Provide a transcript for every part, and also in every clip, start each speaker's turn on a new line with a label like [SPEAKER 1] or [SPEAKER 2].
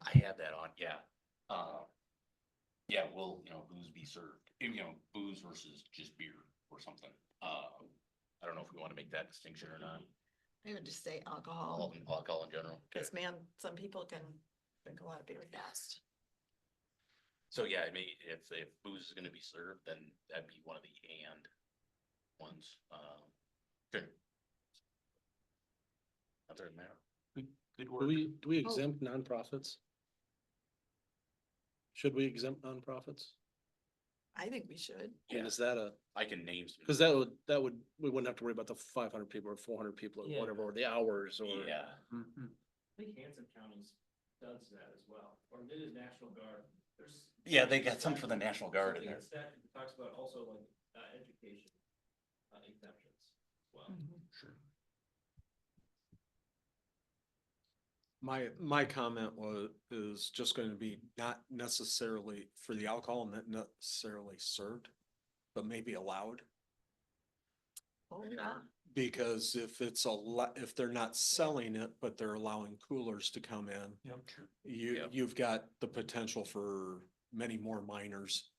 [SPEAKER 1] Uh, served, eh, you know, booze versus just beer or something. Uh, I don't know if we want to make that distinction or not,
[SPEAKER 2] I would just say
[SPEAKER 1] all
[SPEAKER 2] alcohol,
[SPEAKER 1] in, alcohol in general.
[SPEAKER 2] because man, some people can drink a lot of beer fast.
[SPEAKER 1] So yeah, I mean, if, if booze is gonna be served, then that'd be one of the and ones, um, good. Other than that. Good, good
[SPEAKER 3] Do
[SPEAKER 1] work.
[SPEAKER 3] we, do we
[SPEAKER 2] Oh.
[SPEAKER 3] exempt nonprofits? Should we exempt nonprofits?
[SPEAKER 2] I think we should.
[SPEAKER 3] And
[SPEAKER 1] Yeah.
[SPEAKER 3] is that a,
[SPEAKER 1] I can name some.
[SPEAKER 3] cause that would, that would, we wouldn't have to worry about the five hundred people or four hundred people or
[SPEAKER 4] Yeah.
[SPEAKER 3] whatever, or the hours or.
[SPEAKER 1] Yeah,
[SPEAKER 4] I think Hanson County's does that as well, or it is National Guard, there's.
[SPEAKER 1] yeah, they got some for the National Guard in
[SPEAKER 4] something
[SPEAKER 1] there.
[SPEAKER 4] in statute that Talks about also like, uh, education, uh, exemptions as well.
[SPEAKER 1] Sure.
[SPEAKER 5] My, my comment was, is just going to be not necessarily for the alcohol, not necessarily served, but maybe allowed.
[SPEAKER 2] Oh, yeah.
[SPEAKER 5] Because if it's a lot, if they're not selling it, but they're allowing coolers to come in. You,
[SPEAKER 1] Yeah.
[SPEAKER 5] you've got the potential for many more minors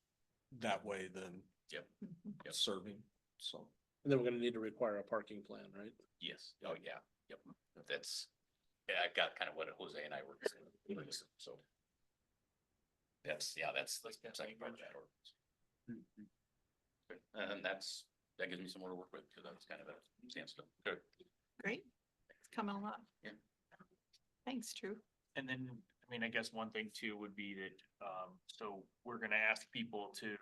[SPEAKER 5] that way than
[SPEAKER 2] Mhm.
[SPEAKER 1] Yep.
[SPEAKER 5] serving, so.
[SPEAKER 3] And then we're gonna need to require a parking plan, right?
[SPEAKER 1] Yes, oh yeah, yep, that's, yeah, I got kind of what Jose and I were, discussing, so. That's, yeah, that's the second part of that ordinance. Good, And then that's, that gives me some more to work with, because that's kind of a standstill. Good.
[SPEAKER 2] Great. It's coming along.
[SPEAKER 1] Yeah.
[SPEAKER 2] Thanks, Drew.
[SPEAKER 6] And then, I mean, I guess one thing too would be that, um, so we're gonna ask people to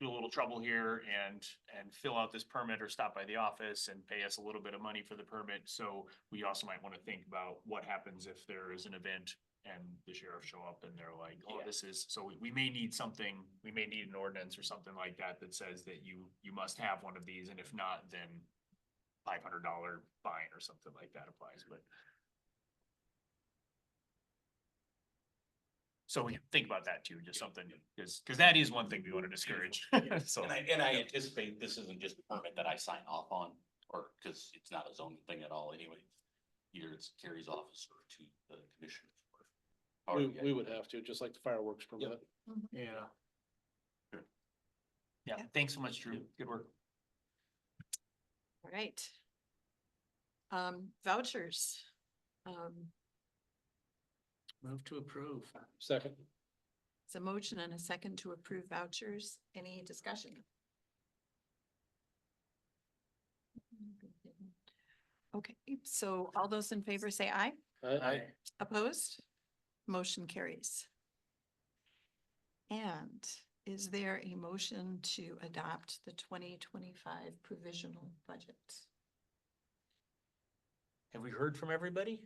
[SPEAKER 6] do a little trouble here and, and fill out this permit or stop by the office and pay us a little bit of money for the permit. So we also might wanna think about what happens if there is an event and the sheriff show up and they're like, oh,
[SPEAKER 1] Yeah.
[SPEAKER 6] this is, so we, we may need something, we may need an ordinance or something like that that says that you, you must have one of these, and if not, then five hundred dollar fine or something like that applies, but So we can think about that too, just something, because, because that is one thing we want to discourage, so.
[SPEAKER 1] And I, and I anticipate this isn't just a permit that I sign off on, or, because it's not a zoning thing at all anyway. Either it's Terry's office or to the commission. or-
[SPEAKER 3] We, we would have to, just like the fireworks permit.
[SPEAKER 2] Mm-hmm.
[SPEAKER 6] Yeah. Yeah, thanks so much, Drew. Good work.
[SPEAKER 2] All right. Um, vouchers. Um,
[SPEAKER 4] Move to approve.
[SPEAKER 3] Second,
[SPEAKER 2] it's a motion and a second to approve vouchers. Any discussion? Okay, so all those in favor say aye.
[SPEAKER 3] I,
[SPEAKER 2] Opposed? Motion carries. And is there a motion to adopt the twenty twenty-five provisional budget?
[SPEAKER 4] Have we heard from everybody?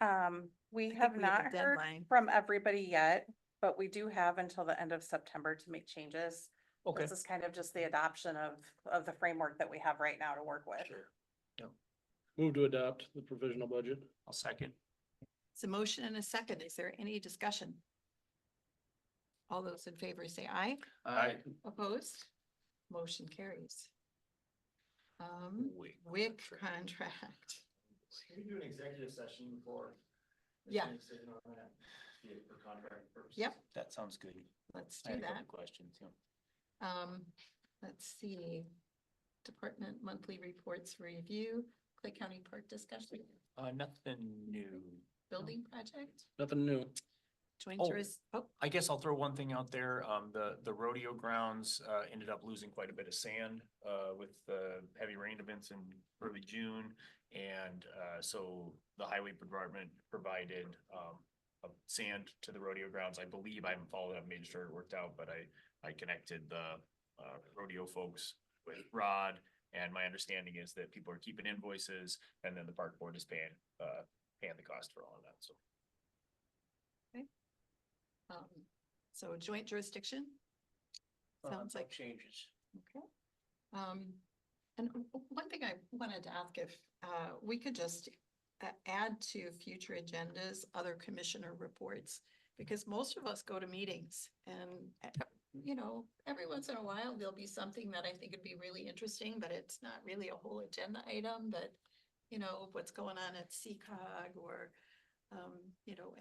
[SPEAKER 7] Um, we
[SPEAKER 2] think
[SPEAKER 7] have
[SPEAKER 2] we have a
[SPEAKER 7] not heard
[SPEAKER 2] deadline.
[SPEAKER 7] from everybody yet, but we do have until the end of September to make changes.
[SPEAKER 4] Okay.
[SPEAKER 7] This is kind of just the adoption of, of the framework that we have right now to work with.
[SPEAKER 3] move to adopt the provisional budget.
[SPEAKER 6] I'll second.
[SPEAKER 2] It's a motion and a second. Is there any discussion? All those in favor say aye.
[SPEAKER 6] Aye.
[SPEAKER 2] Opposed? Motion carries. Um,
[SPEAKER 1] Wait.
[SPEAKER 2] WIC contract.
[SPEAKER 4] Can we do an executive session before?
[SPEAKER 2] Yeah.
[SPEAKER 4] making a decision on that, yeah, For contract purposes?
[SPEAKER 2] Yep.
[SPEAKER 4] That sounds good.
[SPEAKER 2] Let's do that.
[SPEAKER 4] Questions, yeah.
[SPEAKER 2] Um, let's see. Department monthly reports review, Clay County Park discussion,
[SPEAKER 4] Uh, nothing new.
[SPEAKER 2] building project,
[SPEAKER 3] Nothing new.
[SPEAKER 2] joint
[SPEAKER 6] Oh.
[SPEAKER 2] juris, oh,
[SPEAKER 6] I guess I'll throw one thing out there. Um, the, the rodeo grounds, uh, ended up losing quite a bit of sand, uh, with the heavy rain events in early June. And, uh, so the highway department provided, um, uh, sand to the rodeo grounds. I believe I haven't followed up, made sure it worked out, but I, I connected the, uh, rodeo folks with Rod. And my understanding is that people are keeping invoices and then the park board is paying, uh, paying the cost for all of that, so.
[SPEAKER 2] um, so joint jurisdiction. Sounds like,
[SPEAKER 4] Changes.
[SPEAKER 2] okay. Um, and w- w- one thing I wanted to ask if, uh, we could just a- add to future agendas, other commissioner reports. Because most of us go to meetings and, uh, you know, every once in a while, there'll be something that I think would be really interesting, but it's not really a whole agenda item, but. You know, what's going on at CCOG or, um, you know,